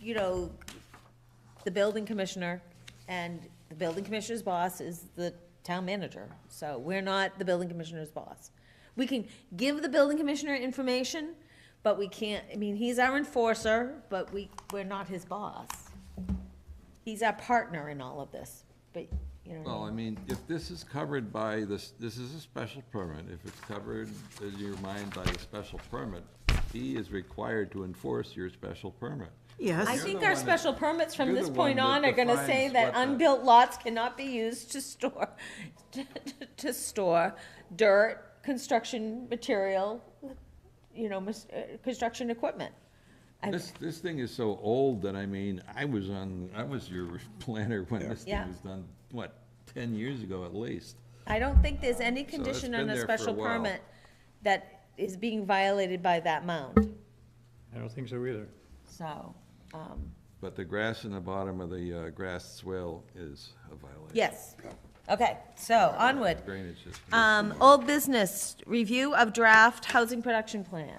you know, the building commissioner, and the building commissioner's boss is the town manager. So we're not the building commissioner's boss. We can give the building commissioner information, but we can't, I mean, he's our enforcer, but we, we're not his boss. He's our partner in all of this, but, you know. what I Well, mean? I mean, if this is covered by this, this is a special permit, if it's covered in your mind by the special permit, he is required to enforce your special permit. I You're Yes, think the our one that- special permits from you're this the point one on that are gonna say defines that what the- unbuilt lots cannot be used to store, to- to store dirt, construction material, you know, mis- uh, construction equipment. I- This, this thing is so old that, I mean, I was on, I was your planner when this Yeah. thing was done, what, ten years ago at least? I don't think there's any it's condition been on a there for a special while. permit that is being violated by that mound, I don't think so either. so, um, But the grass in the bottom of the uh, grass swale is a violation. yes. Okay, so onward. Drainage is. Um, old business, review of draft housing production plan.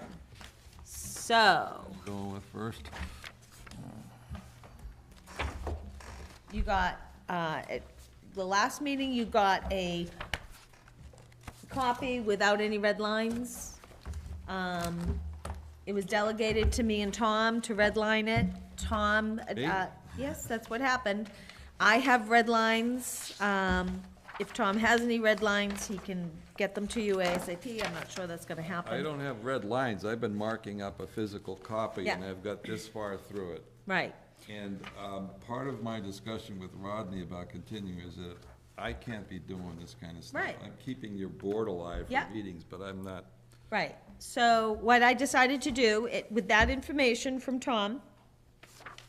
So, Going with first. you got, uh, at the last meeting, you got a copy without any red lines. Um, it was delegated to me and Tom to redline it. Tom, Me? uh, yes, that's what happened. I have red lines. Um, if Tom has any red lines, he can get them to you ASAP. I'm not sure that's gonna happen. I don't have red lines, I've been marking up a physical copy, and Yeah. I've got this far through it. Right, And um, part of my discussion with Rodney about continuing is that I can't be doing this kind of stuff. Right. I'm keeping your board alive Yeah. for meetings, but I'm not, right. So what I decided to do, it, with that information from Tom,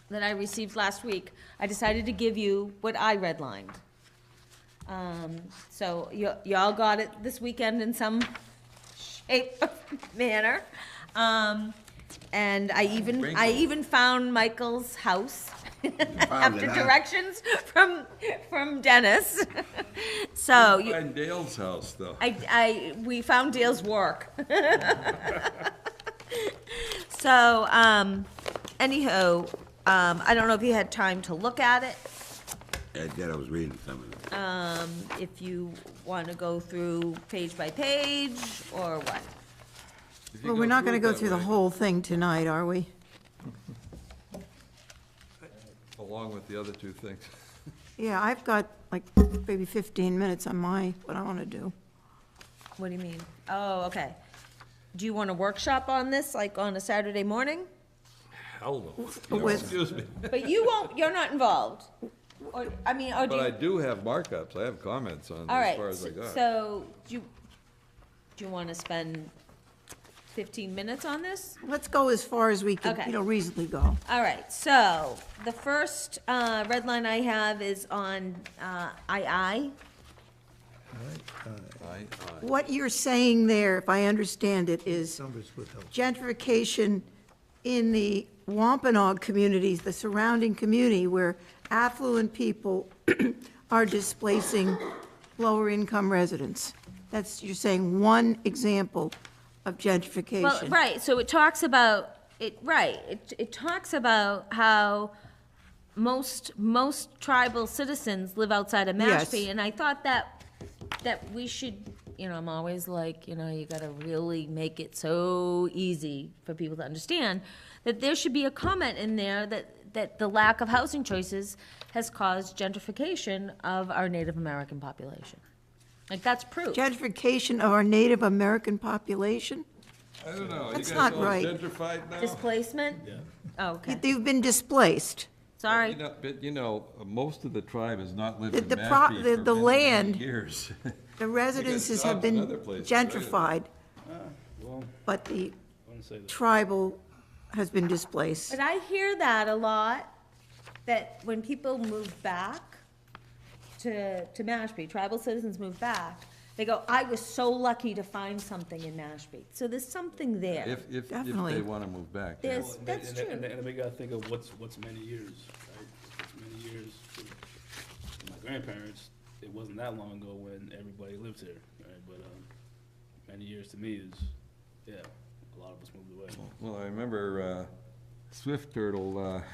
that I received last week, I decided to give you what I redlined. Um, so y- y'all got it this weekend in some shape or manner. Um, and I even, I even found Michael's house after it, huh? directions from, from Dennis. So. you- find Dale's house, though. I, I, we found Dale's work. So, um, anyhow, um, I don't know if you had time to look at it, I did, I was reading some of them. um, if you wanna go through page by page, or what? If you Well, we're not going it to go that through the way, whole thing tonight, are we? Along with the other two things. Yeah, I've got like maybe 15 minutes on my, what I want to do. What do you mean? Oh, okay. Do you want a workshop on this, like on a Saturday morning? Hell no. With- Excuse me, But you won't, you're not involved, or, I mean, or do but I you? do have markups, I have comments on All as right, far as I s- got. so, do you, do you wanna spend fifteen minutes on this? Let's go as far as we can, Okay. you know, reasonably go. All right, so the first uh, red line I have is on uh, II. I- I- What you're saying there, if I understand it, is Numbers would help. gentrification in the Wampanoag communities, the surrounding community where affluent people are displacing lower-income residents. That's, you're saying one example of gentrification. Well, right, so it talks about, it, right, it, it talks about how most, most tribal citizens live outside of Yes. Mashpee. And I thought that, that we should, you know, I'm always like, you know, you gotta really make it so easy for people to understand, that there should be a comment in there that, that the lack of housing choices has caused gentrification of our Native American population. Like, that's proof. gentrification of our Native American population? I don't know, you That's guys all not right. gentrified now? Displacement? Oh, okay, They've been displaced. sorry. You know, But, you know, most of the tribe has not lived The- in the pro- Mashpee for the- many, the many land- years. The jobs residences have in been other places, right? gentrified, but the tribal has been displaced. But I hear that a lot, that when people move back to, to Mashpee, tribal citizens move back, they go, I was so lucky to find something in Mashpee. So there's something there. If, if, if they Definitely. want to move back. yeah. There's, And- that's and- And, true. and we gotta think of what's, what's many years, right? It's many years. for My grandparents, it wasn't that long ago when everybody lived here, right? But, um, many years to me is, yeah, a lot of us moved away. Well, I remember uh, Swift Turtle uh,